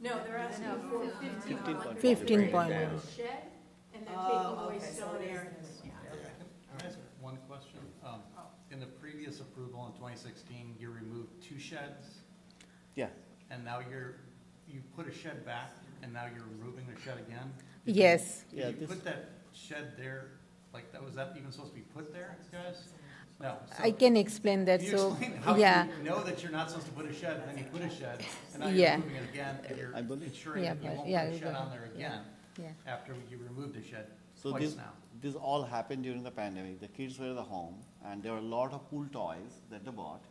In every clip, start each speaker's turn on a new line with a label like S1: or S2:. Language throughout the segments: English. S1: No, they're asking for fifteen hundred.
S2: 15.1.
S1: Shed, and they're taking
S3: Oh,
S1: away
S3: okay, so
S1: stone
S3: it is
S1: area.
S3: this one.
S1: Yeah.
S4: Can I ask one question? Um,
S3: Oh.
S4: In the previous approval in 2016, you removed two sheds,
S2: Yeah,
S4: and now you're, you put a shed back, and now you're removing the shed again? Did you-
S3: Yes,
S2: Yeah,
S4: Did you
S2: this-
S4: put that shed there, like, that was that even supposed to be put there, guys? No. so-
S3: I can explain that,
S4: Can you
S3: so,
S4: explain how
S3: yeah.
S4: you know that you're not supposed to put a shed, and then you put a shed, and now
S3: Yeah.
S4: you're moving it again, and you're
S2: I believe-
S4: ensuring
S3: Yeah,
S4: that you
S3: but-
S4: won't
S3: yeah,
S4: put
S3: you
S4: a shed
S3: don't-
S4: on there again,
S3: yeah.
S4: after you removed the shed
S2: so
S4: twice
S2: this,
S4: now?
S2: this all happened during the pandemic. The kids were at the home and there were a lot of pool toys that they bought.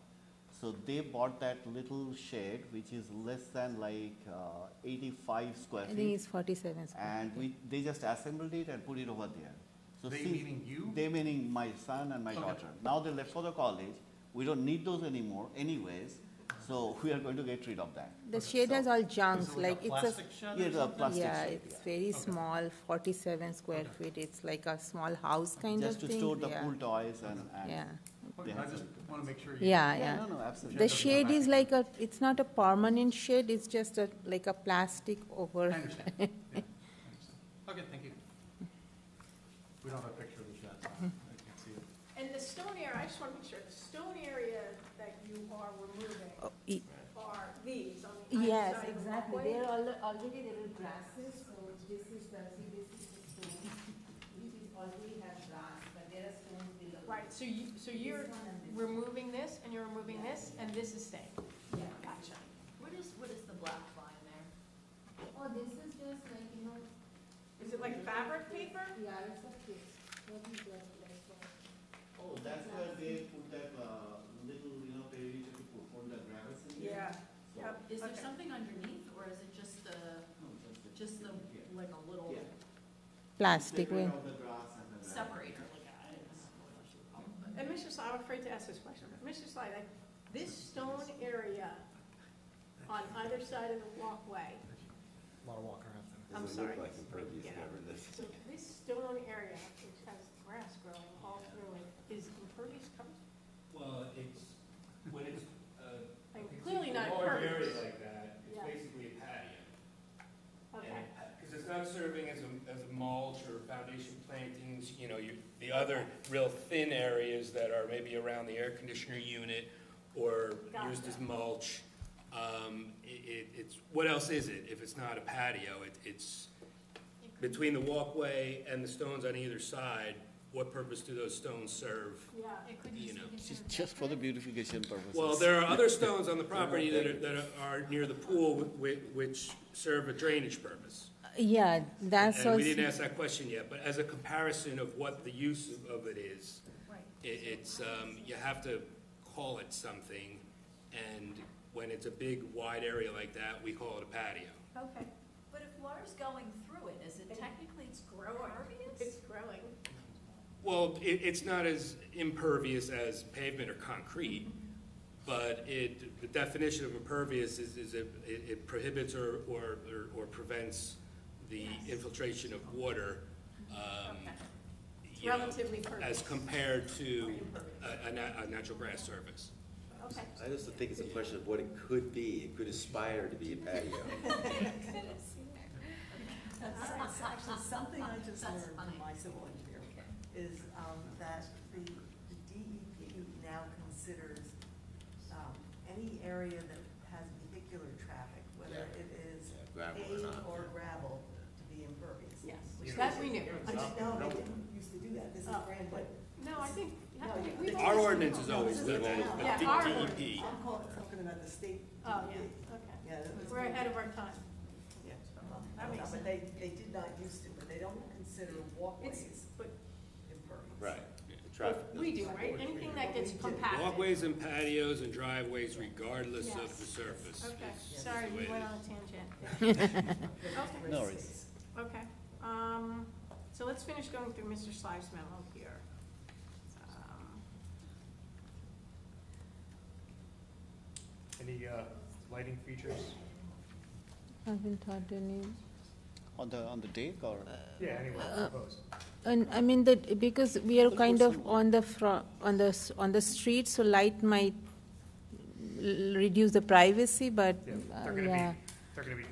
S2: So they bought that little shed, which is less than like uh, eighty-five square
S3: I think
S2: feet.
S3: it's forty-seven square.
S2: And we, they just assembled it and put it over there. So
S4: They
S2: see-
S4: meaning you?
S2: They meaning my son and my
S4: Okay.
S2: daughter. Now they left for the college. We don't need those anymore anyways, so we are going to get rid of that.
S3: The shed has all
S4: Is
S3: junks,
S4: it
S3: like
S4: a
S3: it's
S4: plastic
S3: a,
S4: shed or
S2: Yeah, the
S4: something?
S2: plastic
S3: yeah,
S2: shed,
S3: it's very small, forty-seven square feet, it's like a small house kind of
S2: Just
S3: thing.
S2: to store the
S3: yeah.
S2: pool toys and, and.
S3: Yeah,
S4: Okay, I just want to make sure. you-
S3: yeah,
S2: Yeah,
S3: yeah.
S2: no, no, absolutely.
S3: The
S4: Shed doesn't
S3: shade
S4: come back
S3: is
S4: again.
S3: like a, it's not a permanent shade, it's just a, like a plastic
S4: I
S3: over.
S4: understand. Yeah, I understand. Okay, thank you. We don't have a picture of the shed, so I can't see it.
S1: And the stone area, I just want to make sure, the stone area that you are removing
S3: Oh, e-
S1: are these on the outside
S3: Yes,
S1: of the
S3: exactly.
S1: walkway?
S3: There are al- already there are grasses, so this is the, see, this is the stone, which is already has grass, but there are stones below.
S1: Right, so you, so
S3: This
S1: you're
S3: one and this one.
S1: removing this, and you're removing this, and this is staying?
S3: Yeah.
S1: Gotcha.
S5: What is, what is the black line there?
S3: Oh, this is just like, you know,
S1: Is it like fabric paper?
S3: yeah, it's a kid. What is that, like, what-
S2: Oh, that's where they put that, uh, little, you know, they used to put, put the grass in there. So-
S1: Yep.
S5: Is there
S1: Okay.
S5: something underneath, or is it just the,
S2: No, oh, just the-
S5: just the,
S2: Yeah.
S5: like a little
S2: Yeah.
S3: Plastic,
S2: Separate
S3: right?
S2: out the grass and the-
S5: separator, like, I don't know what you would call it,
S1: And Mr. Sly, I'm afraid to ask this question, but Mr. Sly, like, this stone area on either side of the walkway,
S4: A lot of walking around.
S1: I'm sorry. Yeah.
S6: this.
S1: So this stone area, which has grass growing all through it, is impervious coverage?
S7: Well, it's, when it's, uh.
S1: Like,
S7: if it's
S1: clearly not
S7: A large
S1: pervious.
S7: area like that,
S1: Yeah.
S7: it's basically a patio.
S1: Okay,
S7: Because it's not serving as a, as a mulch or foundation plantings, you know, you, the other real thin areas that are maybe around the air conditioner unit or used as
S1: Gotcha.
S7: mulch. Um, i- it, it's, what else is it if it's not a patio? It, it's between the walkway and the stones on either side, what purpose do those stones serve?
S1: yeah.
S5: but it could
S7: You
S5: just
S7: know,
S5: be
S2: Just,
S5: considered
S2: just for the
S5: decorative.
S2: beautification purposes.
S7: Well, there are other stones on the property that are, that are near the pool which, which serve a drainage purpose.
S3: Yeah, that's
S7: And we
S3: also,
S7: didn't ask that question yet, but as a comparison of what the use of it is,
S5: Right.
S7: it, it's, um, you have to call it something. And when it's a big wide area like that, we call it a patio.
S1: Okay.
S5: But if water's going through it, is it technically it's growing
S1: It's
S5: impervious?
S1: growing.
S7: Well, it, it's not as impervious as pavement or concrete, but it, the definition of impervious is, is it, it prohibits or, or, or- or prevents the infiltration of water, um,
S1: Okay. It's
S7: you know,
S1: relatively pervious.
S7: as compared to a, a na- a natural grass surface.
S1: Okay.
S6: I also think it's a question of what it could be. It could aspire to be a patio.
S8: That's actually something I just
S5: That's
S8: learned
S5: funny.
S8: from my civil engineer, is um, that the the DEP now considers um, any area that has vehicular traffic, whether
S6: Yeah.
S8: it is
S6: Yeah, gravel or
S8: paved
S6: not,
S8: or
S6: yeah.
S8: gravel, to be impervious.
S1: Yes,
S8: Which
S1: that
S8: is-
S1: we knew.
S8: I didn't know, they didn't used to do that, this is
S1: Oh.
S8: brand new.
S1: No, I think, I
S8: No,
S1: think
S8: yeah.
S1: we've
S7: Our
S1: always-
S7: ordinance is always
S8: This is
S7: done
S8: the
S7: that,
S8: town.
S7: but
S1: Yeah,
S7: D-
S1: our
S7: DEP.
S8: I'm calling something about the state.
S1: Oh,
S8: DEP.
S1: yeah, okay.
S8: Yeah. that was-
S1: We're ahead of our time.
S8: Yeah.
S1: That
S8: No,
S1: makes
S8: But they, they did not used to, but they don't consider
S1: It's,
S8: walkways
S1: but
S8: impervious.
S6: Right. The traffic.
S1: we do, right? Anything that gets
S8: We do.
S1: compacted.
S7: Walkways and patios and driveways regardless of the
S1: Yes.
S7: surface.
S1: Okay,
S7: is- is
S1: sorry,
S7: the way
S1: we
S7: it
S1: went
S7: is.
S1: on a tangent. Okay.
S2: No worries.
S1: Okay, um, so let's finish going through Mr. Sly's memo here. Um,
S9: Any uh, lighting features?
S3: haven't thought any,
S2: On the, on the deck or?
S9: Yeah, anyway, proposed.
S3: and I mean that, because we are
S2: Of
S3: kind
S2: course
S3: of
S2: you
S3: on the fro, on the, s- on the street, so light might l- reduce the privacy, but,
S9: Yeah,
S3: uh,
S9: they're gonna
S3: yeah.
S9: be, they're gonna be